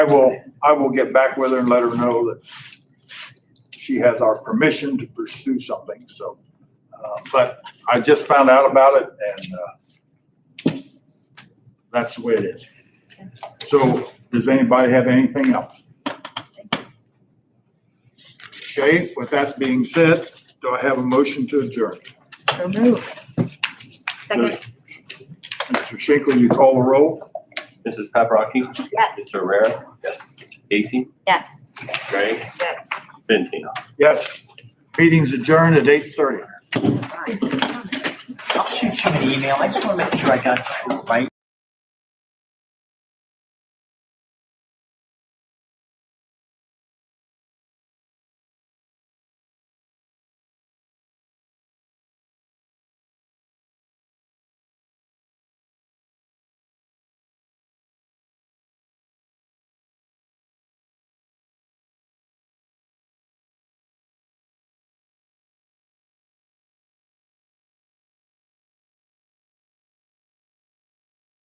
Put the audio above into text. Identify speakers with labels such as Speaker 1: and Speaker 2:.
Speaker 1: I will, I will get back with her and let her know that she has our permission to pursue something, so. uh, But I just found out about it and uh, that's the way it is. So does anybody have anything else? Okay, with that being said, do I have a motion to adjourn?
Speaker 2: So moved.
Speaker 3: Second.
Speaker 1: Mr. Shinkle, you call the roll?
Speaker 4: Mrs. Paprocki?
Speaker 3: Yes.
Speaker 4: Mr. Rare?
Speaker 5: Yes.
Speaker 4: Casey?
Speaker 3: Yes.
Speaker 4: Gray?
Speaker 2: Yes.
Speaker 4: Fenton?
Speaker 1: Yes. Meeting's adjourned at eight thirty.
Speaker 5: I'll shoot you an email. I just want to make sure I got the right